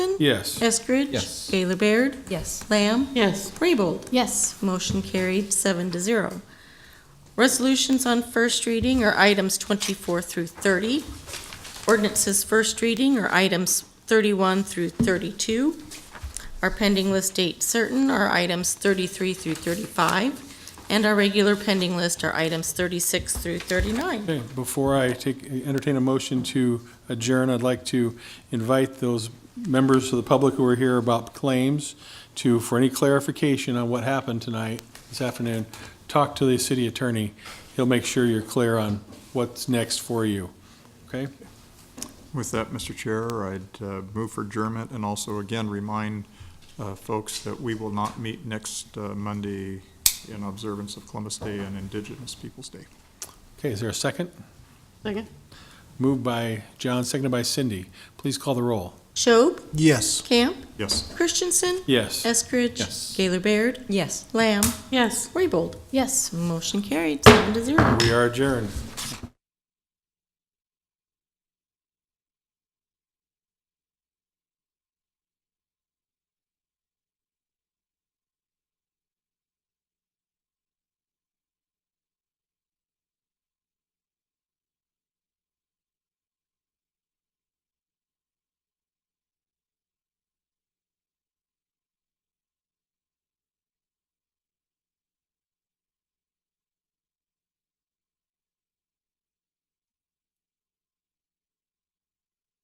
Yes. Eskridge? Yes. Gaylor Baird? Yes. Lamb? Yes. Raybold? Yes. Motion carried, seven to zero. Resolutions on first reading are items 24 through 30. Ordinances first reading are items 31 through 32. Our pending list date certain are items 33 through 35. And our regular pending list are items 36 through 39. Okay, before I take, entertain a motion to adjourn, I'd like to invite those members of the public who are here about claims to, for any clarification on what happened tonight, this afternoon, talk to the city attorney. He'll make sure you're clear on what's next for you, okay? With that, Mr. Chair, I'd uh, move for adjournment and also again remind uh, folks that we will not meet next uh, Monday in observance of Columbus Day and Indigenous Peoples' Day. Okay, is there a second? Second? Moved by John, seconded by Cindy. Please call the roll. Schob, Yes. Camp, Yes. Christensen, Yes. Eskridge. Yes. Gaylor Baird, Yes. Lamb, Yes. Raybold. Yes. Motion carried, seven to zero. We are adjourned.